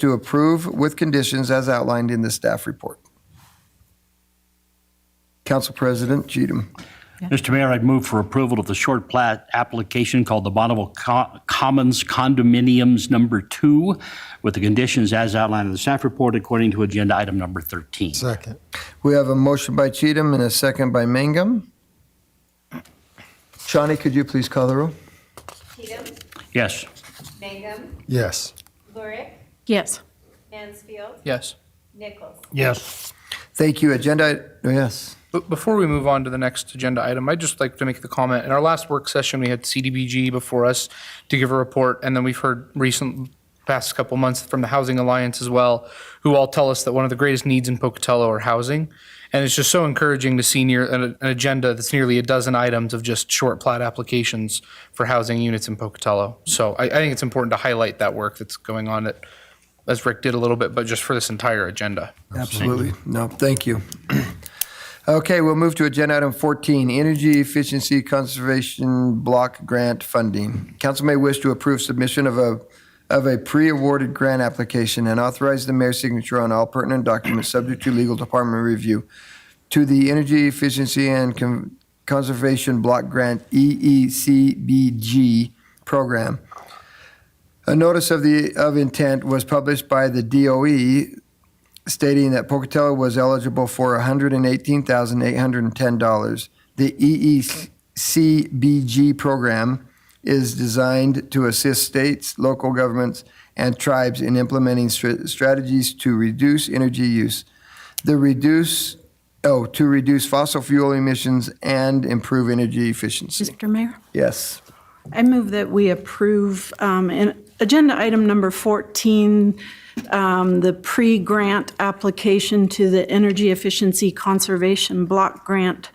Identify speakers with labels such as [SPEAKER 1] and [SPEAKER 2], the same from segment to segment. [SPEAKER 1] to approve with conditions as outlined in the staff report. Council President Cheatham.
[SPEAKER 2] Mr. Mayor, I'd move for approval of the short plat application called the Bonneville Co- Commons Condominiums Number Two with the conditions as outlined in the staff report according to agenda item number 13.
[SPEAKER 3] Second.
[SPEAKER 1] We have a motion by Cheatham and a second by Mangum. Shawnee, could you please call the roll?
[SPEAKER 4] Cheatham,
[SPEAKER 2] Yes.
[SPEAKER 4] Mangum,
[SPEAKER 3] Yes.
[SPEAKER 4] Lurick,
[SPEAKER 5] Yes.
[SPEAKER 4] Mansfield,
[SPEAKER 6] Yes.
[SPEAKER 4] Nichols.
[SPEAKER 3] Yes.
[SPEAKER 1] Thank you. Agenda, oh, yes.
[SPEAKER 6] But before we move on to the next agenda item, I'd just like to make the comment, in our last work session, we had CDBG before us to give a report, and then we've heard recent, past couple months from the Housing Alliance as well, who all tell us that one of the greatest needs in Pocatello are housing. And it's just so encouraging to see near, an, an agenda that's nearly a dozen items of just short plat applications for housing units in Pocatello. So I, I think it's important to highlight that work that's going on, that, as Rick did a little bit, but just for this entire agenda.
[SPEAKER 1] Absolutely. No, thank you. Okay, we'll move to agenda item 14, Energy Efficiency Conservation Block Grant Funding. Council may wish to approve submission of a, of a pre-awarded grant application and authorize the mayor's signature on all pertinent documents subject to legal department review to the Energy Efficiency and Con- Conservation Block Grant E EECBG program. A notice of the, of intent was published by the DOE stating that Pocatello was eligible for $118,810. The E EECBG program is designed to assist states, local governments, and tribes in implementing str- strategies to reduce energy use, the reduce oh to reduce fossil fuel emissions and improve energy efficiency.
[SPEAKER 5] Mr. Mayor?
[SPEAKER 1] Yes.
[SPEAKER 5] I move that we approve, um, in agenda item number 14, um, the pre-grant application to the Energy Efficiency Conservation Block Grant,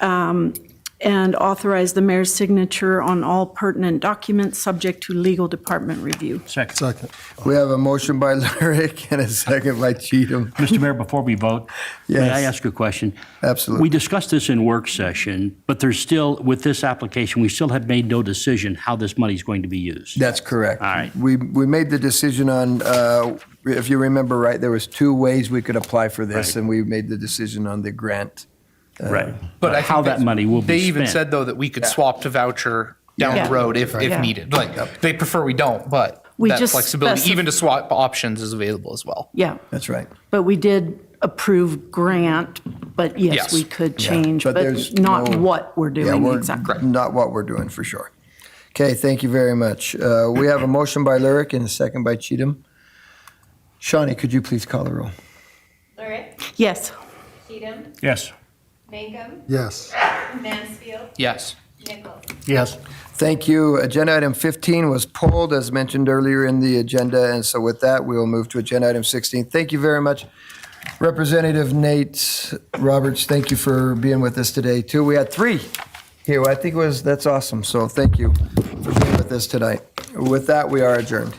[SPEAKER 5] um, and authorize the mayor's signature on all pertinent documents, subject to legal department review.
[SPEAKER 2] Second.
[SPEAKER 3] Second.
[SPEAKER 1] We have a motion by Lyric and a second by Cheatham.
[SPEAKER 2] Mr. Mayor, before we vote, may I
[SPEAKER 1] Yes.
[SPEAKER 2] ask a question?
[SPEAKER 1] Absolutely.
[SPEAKER 2] We discussed this in work session, but there's still, with this application, we still have made no decision how this money is going to be used.
[SPEAKER 1] That's correct.
[SPEAKER 2] All right.
[SPEAKER 1] We, we made the decision on, uh, if you remember right, there was two ways we could apply for this,
[SPEAKER 2] Right.
[SPEAKER 1] and we made the decision on the grant.
[SPEAKER 2] Right.
[SPEAKER 6] But I
[SPEAKER 2] how
[SPEAKER 6] think
[SPEAKER 2] that
[SPEAKER 6] that's-
[SPEAKER 2] money will be
[SPEAKER 6] They even
[SPEAKER 2] spent.
[SPEAKER 6] said though that we could swap to voucher down
[SPEAKER 5] Yeah.
[SPEAKER 6] the road if, if
[SPEAKER 5] Yeah.
[SPEAKER 6] needed. Like, they prefer we don't, but
[SPEAKER 5] We
[SPEAKER 6] that
[SPEAKER 5] just specif-
[SPEAKER 6] flexibility, even to swap options is available as well.
[SPEAKER 5] Yeah,
[SPEAKER 1] That's right.
[SPEAKER 5] but we did approve grant, but yes,
[SPEAKER 6] Yes.
[SPEAKER 5] we could change,
[SPEAKER 1] But there's
[SPEAKER 5] but not
[SPEAKER 1] no-
[SPEAKER 5] what we're
[SPEAKER 1] Yeah,
[SPEAKER 5] doing
[SPEAKER 1] we're
[SPEAKER 5] exactly.
[SPEAKER 1] not what we're doing, for sure. Okay, thank you very much. Uh, We have a motion by Lyric and a second by Cheatham. Shawnee, could you please call the roll?
[SPEAKER 4] Lurick,
[SPEAKER 5] Yes.
[SPEAKER 4] Cheatham,
[SPEAKER 2] Yes.
[SPEAKER 4] Mangum,
[SPEAKER 3] Yes.
[SPEAKER 4] Mansfield,
[SPEAKER 6] Yes.
[SPEAKER 4] Nichols.
[SPEAKER 3] Yes.
[SPEAKER 1] Thank you. Agenda item 15 was pulled, as mentioned earlier in the agenda, and so with that, we will move to agenda item 16. Thank you very much, Representative Nate Roberts. Thank you for being with us today, too. We had three here. I think it was, that's awesome, so thank you for being with us tonight. With that, we are adjourned.